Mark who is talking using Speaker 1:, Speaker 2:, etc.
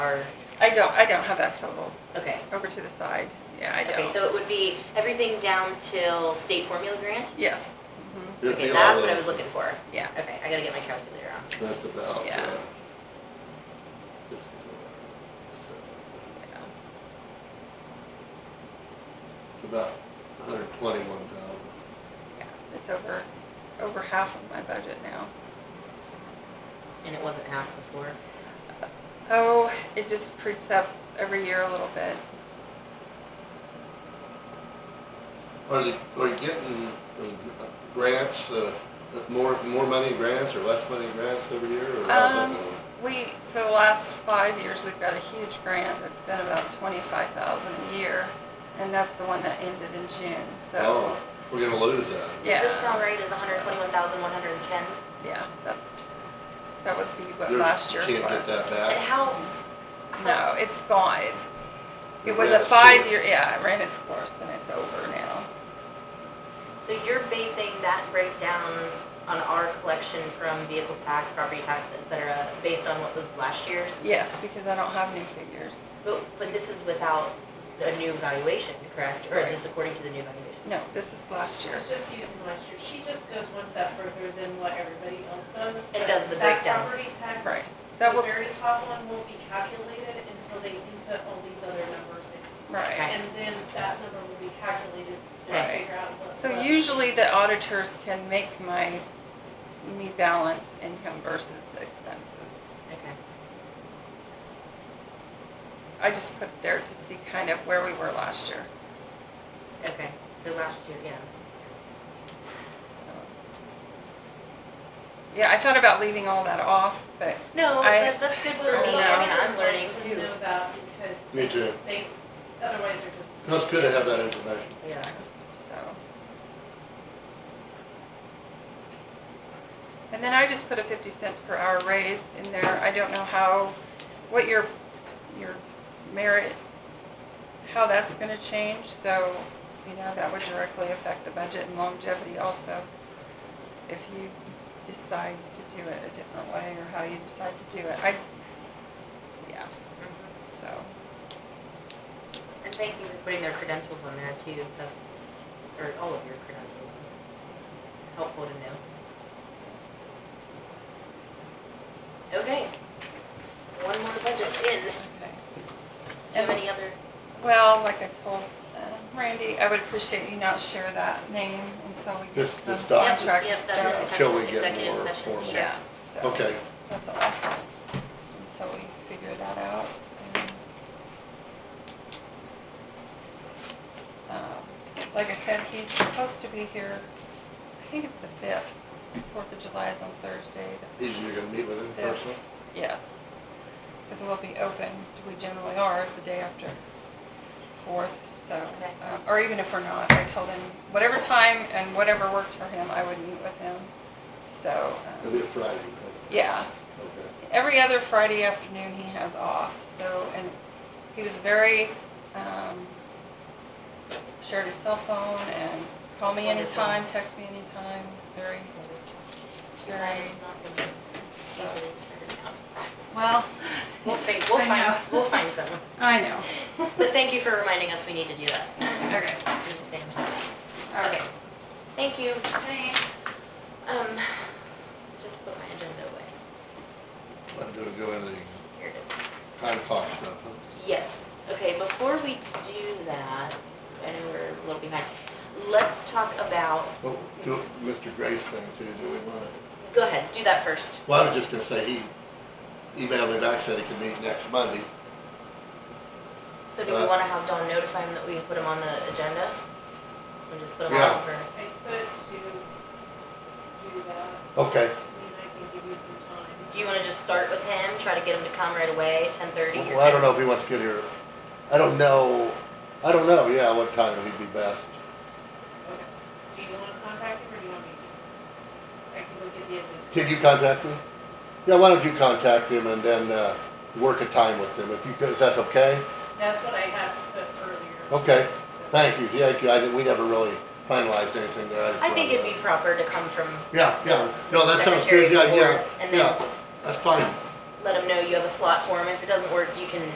Speaker 1: Or,
Speaker 2: I don't, I don't have that total.
Speaker 1: okay.
Speaker 2: Over to the side. Yeah, I
Speaker 1: Okay,
Speaker 2: don't.
Speaker 1: so it would be everything down till state formula grant?
Speaker 2: Yes. Mhm.
Speaker 3: It'd
Speaker 1: Okay,
Speaker 3: be
Speaker 1: that's
Speaker 3: all
Speaker 1: what I
Speaker 3: in.
Speaker 1: was looking for.
Speaker 2: Yeah.
Speaker 1: Okay, I gotta get my calculator out.
Speaker 3: That's about,
Speaker 2: Yeah.
Speaker 3: uh.
Speaker 2: yeah.
Speaker 3: It's about hundred twenty-one thousand.
Speaker 2: Yeah, It's over, over half of my budget now.
Speaker 1: And it wasn't half before.
Speaker 2: Oh, it just creeps up every year a little bit.
Speaker 3: Are they, are you getting uh, grants, uh, more, more money grants or less money grants every year or? how's that
Speaker 2: Um,
Speaker 3: going?
Speaker 2: We, for the last five years, we've got a huge grant that's been about twenty-five thousand a year. And that's the one that ended in June, so,
Speaker 3: Oh, we're gonna lose that.
Speaker 2: Yeah.
Speaker 4: Does this sound right, is hundred twenty-one thousand, one hundred and ten?
Speaker 2: yeah, that's, that would be what
Speaker 3: There's-
Speaker 2: last year's was.
Speaker 3: Can't get that
Speaker 4: And
Speaker 3: back.
Speaker 4: how,
Speaker 2: No, it's gone. It was
Speaker 3: Yeah,
Speaker 2: a
Speaker 3: it's
Speaker 2: five-year, yeah, it ran its course and it's over now.
Speaker 1: So you're basing that breakdown on our collection from vehicle tax, property tax, et cetera, based on what was last year's?
Speaker 2: Yes, because I don't have new figures.
Speaker 1: But, but this is without a new valuation, correct? Or is this according to the new valuation?
Speaker 2: No, this is last year.
Speaker 5: It's just using last year. She just goes one step further than what everybody else does.
Speaker 1: And does the
Speaker 5: That
Speaker 1: breakdown.
Speaker 5: property tax,
Speaker 2: Right. That
Speaker 5: the
Speaker 2: will,
Speaker 5: very top one won't be calculated until they input all these other numbers in.
Speaker 2: right.
Speaker 5: And then that number will be calculated to
Speaker 1: Right.
Speaker 5: figure out what.
Speaker 2: So
Speaker 5: what-
Speaker 2: usually the auditors can make my, me balance income versus expenses.
Speaker 1: Okay.
Speaker 2: I just put it there to see kind of where we were last year.
Speaker 1: Okay, so last year, yeah.
Speaker 2: so. Yeah, I thought about leaving all that off, but
Speaker 1: No,
Speaker 2: I-
Speaker 1: that, that's good for
Speaker 5: Well,
Speaker 1: me.
Speaker 2: you know,
Speaker 5: I
Speaker 1: I mean, I'm
Speaker 5: always like
Speaker 1: learning
Speaker 5: to
Speaker 1: too.
Speaker 5: know that because
Speaker 3: Me too.
Speaker 5: they, otherwise they're just.
Speaker 3: No, it's good to have that information.
Speaker 1: Yeah.
Speaker 2: So. And then I just put a fifty cent per hour raise in there. I don't know how, what your, your merit, how that's gonna change, so, you know, that would directly affect the budget and longevity also. If you decide to do it a different way or how you decide to do it. I, yeah,
Speaker 1: Mhm.
Speaker 2: so.
Speaker 1: And thank you for putting their credentials on there too, that's, or all of your credentials. Helpful to know. Okay. One more budget in.
Speaker 2: okay.
Speaker 1: Do you have any other?
Speaker 2: Well, like I told uh, Randy, I would appreciate you not share that name until we get
Speaker 3: This-
Speaker 2: some
Speaker 3: this doc.
Speaker 2: contract
Speaker 3: Yep,
Speaker 1: Yep,
Speaker 2: stuff.
Speaker 1: that's
Speaker 3: Yeah,
Speaker 1: it.
Speaker 3: till Uh, we get
Speaker 1: Executive
Speaker 3: more
Speaker 1: session,
Speaker 3: formal.
Speaker 1: sure.
Speaker 2: Yeah, so.
Speaker 3: Okay,
Speaker 2: That's all. Until we figure that out. and, um, Like I said, he's supposed to be here, I think it's the fifth. Fourth of July is on Thursday, the
Speaker 3: easy, you're gonna meet with him
Speaker 2: Yes.
Speaker 3: personally?
Speaker 2: Yes. Because we'll be open, we generally are, the day after fourth, so.
Speaker 1: Okay.
Speaker 2: uh, Or even if we're not, I told him, whatever time and whatever worked for him, I would meet with him, so. um,
Speaker 3: It'll be a Friday,
Speaker 2: Yeah,
Speaker 3: okay.
Speaker 2: every other Friday afternoon he has off, so, and he was very, um, shared his cell phone and call me
Speaker 1: That's wonderful.
Speaker 2: anytime, text me anytime, very, very,
Speaker 1: It's not gonna be
Speaker 2: so,
Speaker 1: easily figured out.
Speaker 2: well.
Speaker 1: We'll fi- we'll
Speaker 2: I
Speaker 1: find,
Speaker 2: know.
Speaker 1: we'll find someone.
Speaker 2: I know.
Speaker 1: But thank you for reminding us we need to do that.
Speaker 2: Okay.
Speaker 1: Just stay on top. Okay, thank you.
Speaker 2: Thanks.
Speaker 1: Um, just put my agenda away.
Speaker 3: I'm gonna go into the
Speaker 1: Here it is.
Speaker 3: time clock stuff, huh?
Speaker 1: Yes, okay, before we do that, I know we're a little behind, let's talk about,
Speaker 3: Well, do Mr. Grace thing too, do we want it?
Speaker 1: go ahead, do that first.
Speaker 3: Well, I was just gonna say, he emailed me back, said he could meet next Monday.
Speaker 1: So do we
Speaker 3: Uh,
Speaker 1: wanna have Dawn notify him that we put him on the agenda? And just put him
Speaker 3: Yeah.
Speaker 1: on for,
Speaker 5: I could to do that,
Speaker 3: Okay.
Speaker 5: I mean, I can give you some time.
Speaker 1: do you wanna just start with him, try to get him to come right away, ten thirty or ten?
Speaker 3: Well, I don't know if he wants to get here. I don't know, I don't know, yeah, what time would he be best?
Speaker 5: Okay. Do you wanna contact him or do you want me to? I can look at the agenda.
Speaker 3: Can you contact him? Yeah, why don't you contact him and then, uh, work a time with him, if you could, if that's okay?
Speaker 5: That's what I had put earlier.
Speaker 3: Okay,
Speaker 5: so-
Speaker 3: thank you, yeah, I, didn't- we never really finalized anything there. just
Speaker 1: I think
Speaker 3: wanted
Speaker 1: it'd be
Speaker 3: to-
Speaker 1: proper to come from
Speaker 3: Yeah, yeah, no, that sounds
Speaker 1: secretary
Speaker 3: good, yeah,
Speaker 1: or-
Speaker 3: yeah,
Speaker 1: and then-
Speaker 3: yeah, that's fine,
Speaker 1: let them know you have a slot for them. If it doesn't work, you can